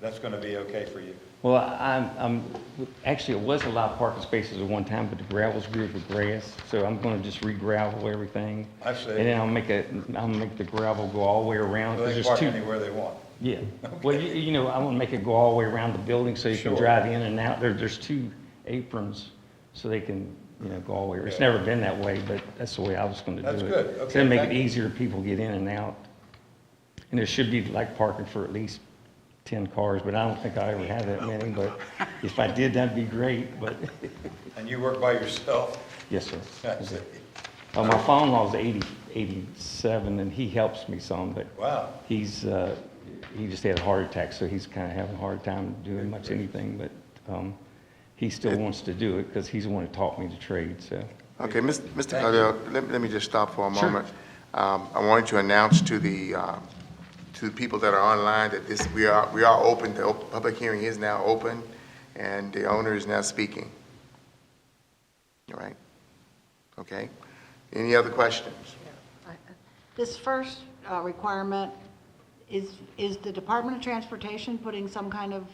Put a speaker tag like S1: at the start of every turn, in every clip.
S1: That's gonna be okay for you?
S2: Well, I'm, I'm, actually, it was a lot of parking spaces at one time, but the gravel's grew with grass, so I'm gonna just re-gravel everything.
S1: I see.
S2: And then I'll make a, I'll make the gravel go all the way around,
S1: They can
S2: because there's
S1: park
S2: two.
S1: anywhere they want.
S2: Yeah, well, you, you know, I wanna make it go all the way around the building, so you can
S1: Sure.
S2: drive in and out, there, there's two aprons, so they can, you know, go all the way, it's
S1: Yeah.
S2: never been that way, but that's the way I was gonna do it.
S1: That's good.
S2: So
S1: Okay,
S2: it'll make
S1: thank
S2: it
S1: you.
S2: easier, for people to get in and out, and there should be like parking for at least ten cars, but I don't think I ever have that many, but if I did, that'd be great, but,
S1: And you work by yourself?
S2: yes, sir.
S1: I see.
S2: Uh, my father-in-law's eighty, eighty-seven, and he helps me some, but
S1: Wow.
S2: He's, uh, he just had a heart attack, so he's kind of having a hard time doing much anything, but um, he still wants to do it because he's the one who taught me to trade, so.
S3: Okay, Mis- Mr. Cardell, let let me just stop for a moment. Um, I wanted to announce to the, uh, to the people that are online that this, we are, we are open, the op- public hearing is now open, and the owner is now speaking. All right? Okay? Any other questions?
S4: This first uh, requirement, is, is the Department of Transportation putting some kind of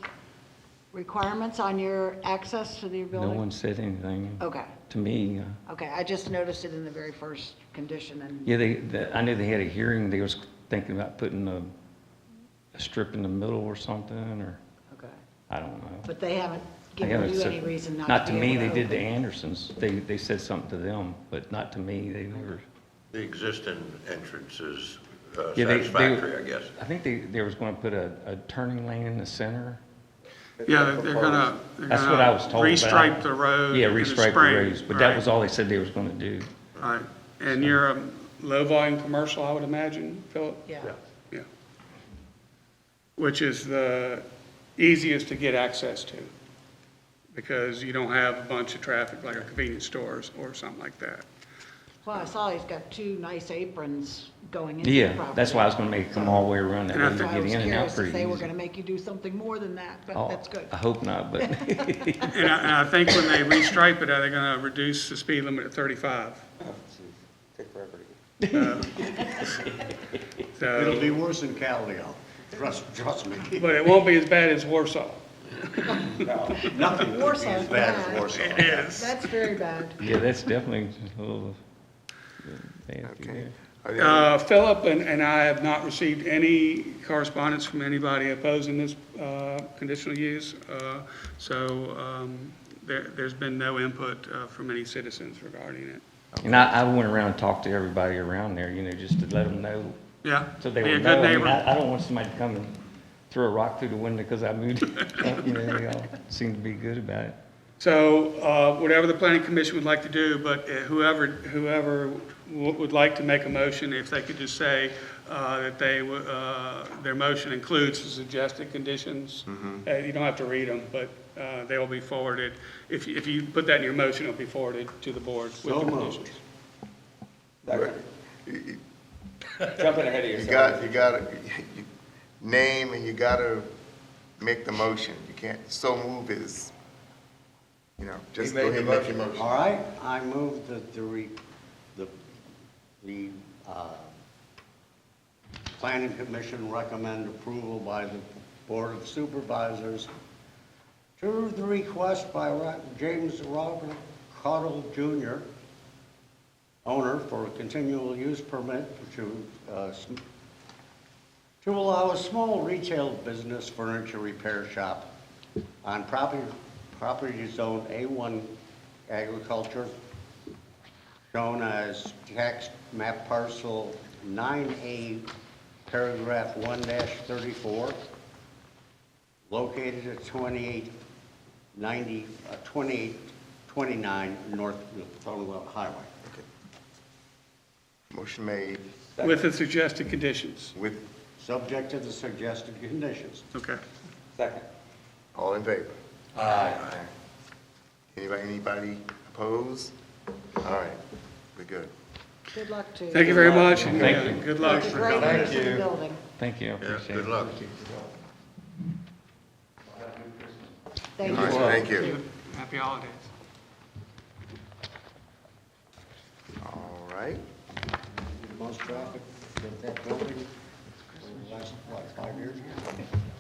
S4: requirements on your access to the
S2: No
S4: building?
S2: one said anything
S4: Okay,
S2: to me. uh,
S4: okay, I just noticed it in the very first condition, and,
S2: Yeah, they, the- I knew they had a hearing, they was thinking about putting a a strip in the middle or something, or,
S4: okay.
S2: I don't know.
S4: But they haven't
S2: I haven't
S4: given you
S2: said-
S4: any reason not to be
S2: me,
S4: able
S2: they did to
S4: open.
S2: Andersons. They, they said something to them, but not to me, they never.
S5: The existing entrance is uh,
S2: Yeah, they- they-
S5: satisfactory, I guess.
S2: I think they, they was going to put a, a turning lane in the center.
S6: Yeah, they're- they're gonna, they're
S2: That's what I was
S6: gonna
S2: told. but I-
S6: restripe the road.
S2: Yeah,
S6: in the
S2: restripe the
S6: spring,
S2: roads, but that
S6: right,
S2: was all they said they was gonna do.
S6: Right, and you're a low-volume commercial, I would imagine, Philip?
S4: Yeah,
S6: Yeah. Which is the easiest to get access to, because you don't have a bunch of traffic like a convenience stores or something like that.
S4: well, I saw he's got two nice aprons going into the
S2: Yeah,
S4: property.
S2: that's why I was gonna make them all the way around that
S6: And I
S2: way to
S4: So I
S2: get
S4: was
S2: in and out
S4: curious if
S2: pretty
S4: they were
S2: easy.
S4: gonna make you do something more than that, but
S2: Oh,
S4: that's good.
S2: I hope not, but
S6: And I, and I think when they restripe it, are they gonna reduce the speed limit to 35? Uh, Take forever
S7: It'll be worse than Caldwell, trust, trust me.
S6: But it won't be as bad as Warsaw.
S7: Nothing could be
S4: Warsaw's
S7: as bad
S4: bad.
S7: as Warsaw.
S4: That's very bad.
S2: yeah, that's definitely a little nasty
S3: Okay.
S2: there.
S3: Are there-
S6: Uh, Philip and, and I have not received any correspondence from anybody opposing this, uh, conditional use. Uh, so, um, there, there's been no input, uh, from any citizens regarding it.
S2: And I, I went around and talked to everybody around there, you know, just to let them know,
S6: Yeah.
S2: so they
S6: be a
S2: would
S6: good
S2: know. I mean,
S6: neighbor.
S2: I, I don't want somebody to come and throw a rock through the window because I moved. it. You know, They all seem to be good about it.
S6: So, uh, whatever the planning commission would like to do, but uh, whoever, whoever w- would like to make a motion, if they could just say, uh, that they, w- uh, their motion includes the suggested conditions. Uh, you don't have to read them, but, uh, they will be forwarded. If, you- if you put that in your motion, it'll be forwarded to the board with
S7: So
S6: the
S7: moved.
S6: conditions.
S8: Jumping ahead of
S3: You
S8: yourself.
S3: got, you gotta, you- name and you gotta make the motion. You can't, so move is, you know, just
S1: made
S3: go ahead and
S1: the
S3: make your
S1: motion.
S3: motion.
S7: All right, I move that the re, the, the, uh, planning commission recommend approval by the board of supervisors to the request by Ro- James Robert Cottle Jr., owner for a continual use permit to, uh, sm- to allow a small retail business furniture repair shop on property, property zone A1 agriculture, shown as tax map parcel 9A, paragraph 1-34, located at 2890, uh, 2829 North Thornwell Highway.
S3: Motion made
S6: With the suggested conditions.
S3: with,
S7: Subject to the suggested conditions.
S6: Okay.
S8: Second.
S3: all in favor? Aye. Anybody, anybody opposed? All right, we're good.
S4: Good luck to you.
S6: Thank you very much. and,
S2: Thank
S6: uh,
S2: you.
S6: Good luck.
S4: It's a great
S1: Thank
S4: use of the
S1: you.
S4: building.
S2: Thank you, I
S5: Yeah,
S2: appreciate
S5: good
S2: it.
S5: luck.
S4: Thank
S3: All
S4: you.
S3: right, thank you.
S6: Happy holidays.
S3: All right,
S7: Most traffic in that building for the last, what, five years?